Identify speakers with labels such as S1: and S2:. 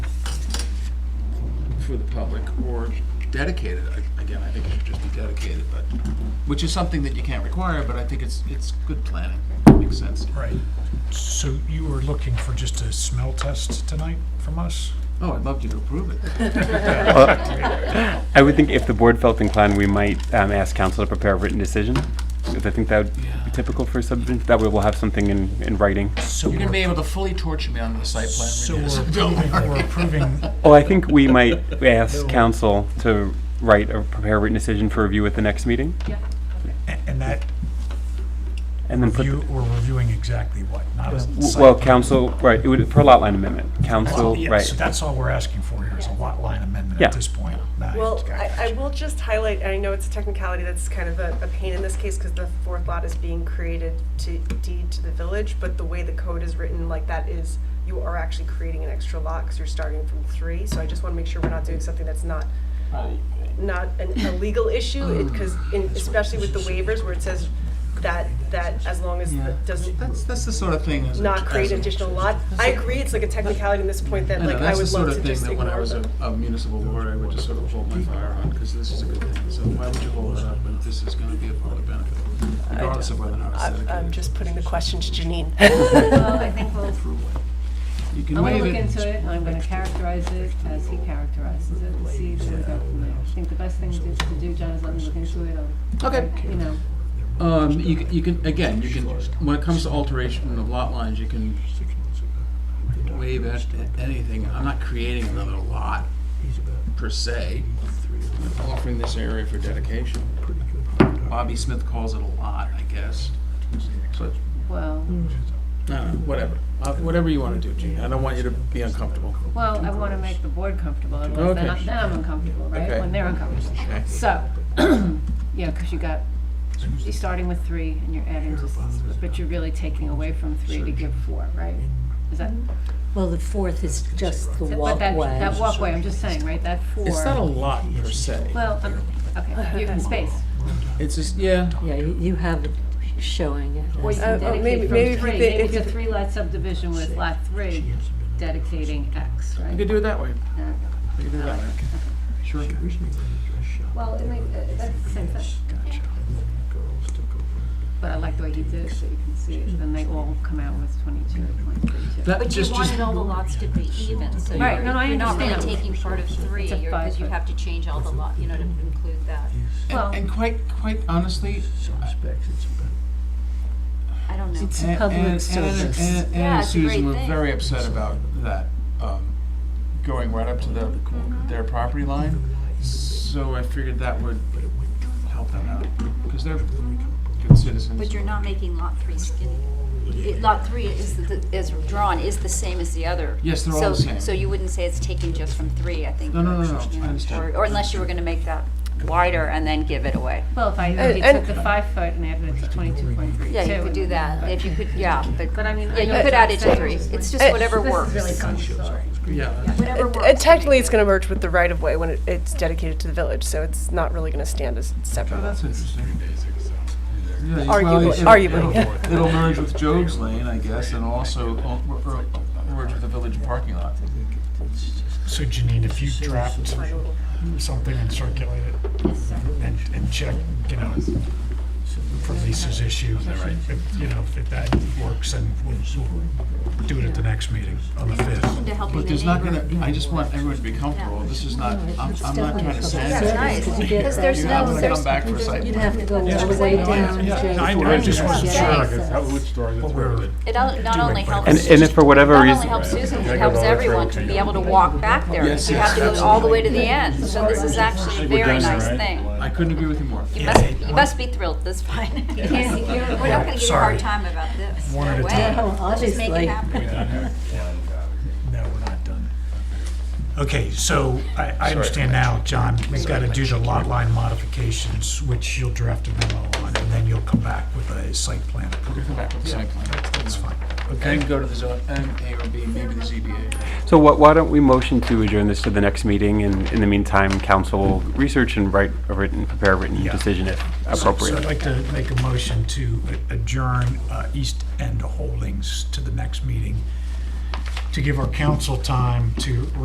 S1: for the public or dedicated, I- again, I think it should just be dedicated, but, which is something that you can't require, but I think it's, it's good planning, makes sense.
S2: Right. So you were looking for just a smell test tonight from us?
S1: Oh, I'd love you to approve it.
S3: Uh, I would think if the board felt inclined, we might um, ask council to prepare a written decision. Because I think that would
S1: Yeah.
S3: be typical for subdivision, that way we'll have something in, in writing.
S2: So
S1: You're gonna be
S2: we're-
S1: able to fully torture me on the site plan
S2: So
S1: review,
S2: we're
S1: don't
S2: approving,
S1: worry.
S2: we're approving,
S3: Well, I think we might ask council to write or prepare a written decision for review at the next meeting.
S2: a- and that
S3: And then put,
S2: review,
S3: the-
S2: we're reviewing exactly what, not a
S3: w-
S2: site. Oh,
S3: well, council, right, it would, for a lot line amendment, council,
S2: Yeah,
S3: right.
S2: So that's all we're asking for here is a lot line amendment
S3: Yeah.
S2: at this point. Nice,
S4: Well,
S2: got it.
S4: I, I will just highlight, and I know it's a technicality that's kind of a, a pain in this case because the fourth lot is being created to deed to the village, but the way the code is written, like that is, you are actually creating an extra lot because you're starting from three. So I just want to make sure we're not doing something that's not, not an, a legal issue, because in, especially with the waivers where it says that, that as long as
S1: Yeah,
S4: it doesn't
S1: That's, that's the sort of thing as. a-
S4: not create
S1: as a-
S4: an additional lot. I agree, it's like a technicality in this point that
S1: I know,
S4: like I
S1: that's the
S4: would
S1: sort of
S4: love to
S1: thing
S4: just
S1: that
S4: ignore.
S1: when I was a
S4: but-
S1: a municipal lawyer, I would just sort of hold my fire on, because this is a good thing. So why would you hold it up if this is gonna be a public benefit, regardless of whether or not it's
S4: I'm,
S1: dedicated?
S4: I'm just putting the question to Janine.
S5: Well, I think we'll,
S1: You can
S5: I'm gonna
S1: waive
S5: look
S1: it.
S5: into it, and I'm gonna characterize it as he characterizes it, and see where we go from there. I think the best thing to to do, John, is let me look into it, I'll,
S1: Okay.
S5: you know,
S1: Um, you can, you can, again, you can, when it comes to alteration of lot lines, you can waive at anything. I'm not creating another lot per se. I'm offering this area for dedication. Bobby Smith calls it a lot, I guess. But
S5: well,
S1: No, no, whatever. Uh, Whatever you want to do, Gene. I don't want you to be uncomfortable.
S5: well, I wanna make the board comfortable, otherwise then
S1: Okay.
S5: I- then I'm uncomfortable,
S1: Okay.
S5: right? When they're uncomfortable.
S1: Okay.
S5: So, you know, cause you got, you're starting with three and you're adding to, s- but you're really taking away from three to give four, right? Is that,
S6: Well, the fourth is just the
S5: but that, that
S6: walkway.
S5: walkway, I'm just saying, right, that four.
S1: It's not a lot per se.
S5: Well, I'm- okay, you space.
S1: It's just, yeah,
S6: Yeah, you you have it showing it.
S5: Or you
S6: as
S5: can
S4: Uh, oh,
S5: dedicate
S4: maybe-
S5: from
S4: maybe if
S5: three.
S4: you
S5: Maybe
S4: think-
S5: it's a
S4: if you-
S5: three-lot subdivision with lot three dedicating X,
S1: we
S5: right?
S1: could do it that way.
S5: Uh,
S1: We could do it that way. Sure.
S5: Well, it makes, that's the same thing. But I like the way he did it, so you can see it, then they all come out with twenty-two point three two.
S1: That
S7: But you
S1: just, just,
S7: wanted all the lots to be even, so
S5: Right,
S7: you're,
S5: no, no, I
S7: you're not really
S5: understand.
S7: taking part of three,
S5: It's a
S7: because you
S5: five-foot.
S7: have to change all the lot, you know, to include that.
S5: Well,
S1: and and quite, quite honestly, uh,
S7: I don't know.
S6: It's a
S1: Ann- Ann- Ann-
S6: public service.
S1: Ann- Ann
S7: Yeah,
S1: and
S7: it's a great
S1: Susan were
S7: thing.
S1: very upset about that, um, going right up to the, their property line. So I figured that would help them out, because they're good citizens.
S7: But you're not making lot three skinny. It- Lot three is, the- is drawn, is the same as the other.
S1: Yes, they're all the
S7: So-
S1: same.
S7: So you wouldn't say it's taking just from three, I think.
S1: No, no, no, no,
S7: you know,
S1: I understand.
S7: or- Or unless you were gonna make that wider and then give it away.
S5: well, if I, if you took the five foot and added it to twenty-two point three two.
S7: Yeah, you could do that, if you could, yeah, but.
S5: But I mean, I know
S7: Yeah, you
S5: it's
S7: could
S5: not
S7: add it to
S5: saying
S7: three,
S5: it's
S7: it's
S5: like-
S7: just whatever works.
S5: This is really fun, sorry.
S1: Yeah,
S7: Whatever
S4: It-
S7: works.
S4: it Technically,
S7: make
S4: it's
S7: it.
S4: gonna merge with the right-of-way when it- it's dedicated to the village, so it's not really gonna stand as
S1: Oh,
S4: separate.
S1: that's interesting. Yeah, you-
S4: Arguably-
S1: well, it'll-
S4: arguably.
S1: it'll- It'll merge with Jogues Lane, I guess, and also o- or- or merge with the village parking lot.
S2: So Janine, if you dropped something and circulate it and, and check, you know, for Lisa's issue, if, you know, if that works, then we'll, we'll do it at the next meeting on the fifth.
S7: To helping
S1: But
S7: the
S1: there's not
S7: neighbor.
S1: gonna, I just want everyone to be comfortable. This is not, I'm, I'm not trying to say.
S7: That's nice,
S6: Because you get-
S7: because there's
S1: You're
S7: no,
S1: not gonna
S7: there's-
S1: come back for a site
S6: You'd
S1: plan.
S6: have to go all the way down.
S2: Yeah,
S6: Joe,
S2: I- I
S6: before
S2: just
S6: you
S2: wasn't
S6: get
S2: sure,
S6: to
S7: like,
S6: access.
S2: But we're,
S7: It al- not only helps.
S3: And, and if for whatever
S7: Not
S3: reason.
S7: only helps Susan, but it helps everyone to be able to walk back there.
S1: Yes,
S7: You
S1: yes,
S7: have to go all the way to the end, so this is actually a very nice thing.
S1: I couldn't agree with you more.
S7: You must, you must be thrilled, that's fine. We're not gonna give you a
S2: Sorry.
S7: hard time about this,
S2: One at
S7: no
S2: a
S7: way.
S2: time.
S6: Oh,
S7: Let's just make it
S6: obviously.
S7: happen.
S2: no, we're not done. Okay, so I, I understand now, John, we've got to do the lot line modifications, which you'll draft a memo on, and then you'll come back with a site plan approval.
S1: Come back with a site plan.
S2: That's fine.
S1: And go to the zone, and A or B, maybe the ZBA.
S3: So wh- why don't we motion to adjourn this to the next meeting, and in the meantime, council will research and write a written, prepare a written
S2: Yeah.
S3: decision if
S2: So I'd
S3: appropriate.
S2: like to make a motion to adjourn uh, East End Holdings to the next meeting, to give our council time to